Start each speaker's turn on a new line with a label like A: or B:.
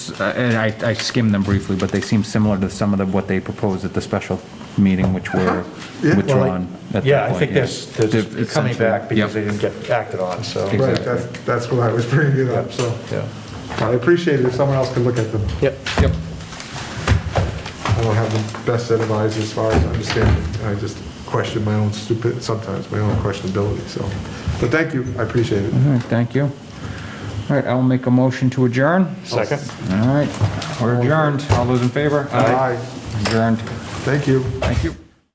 A: Uh, And I, I skimmed them briefly, but they seem similar to some of the, what they proposed at the special meeting, which were withdrawn at that point.
B: Yeah, Uh-huh. I think there's,
A: They're
B: they're coming back because they
A: essentially-
B: didn't get acted on, so.
A: Exactly.
B: Right.
A: Right.
C: Right, that's, that's what I was bringing it up, so.
B: Yeah.
C: I appreciate it if someone else could look at them.
B: Yep.
A: Yep.
C: I don't have the best set of eyes as far as understanding. I just question my own stupid, sometimes my own questionability, so. But thank you, I appreciate it.
A: All right, thank you. All right, I'll make a motion to adjourn.
B: Second?
A: All right, we're adjourned. All those in favor?
C: Aye,
A: Adjourned.
C: thank you.
A: Thank you.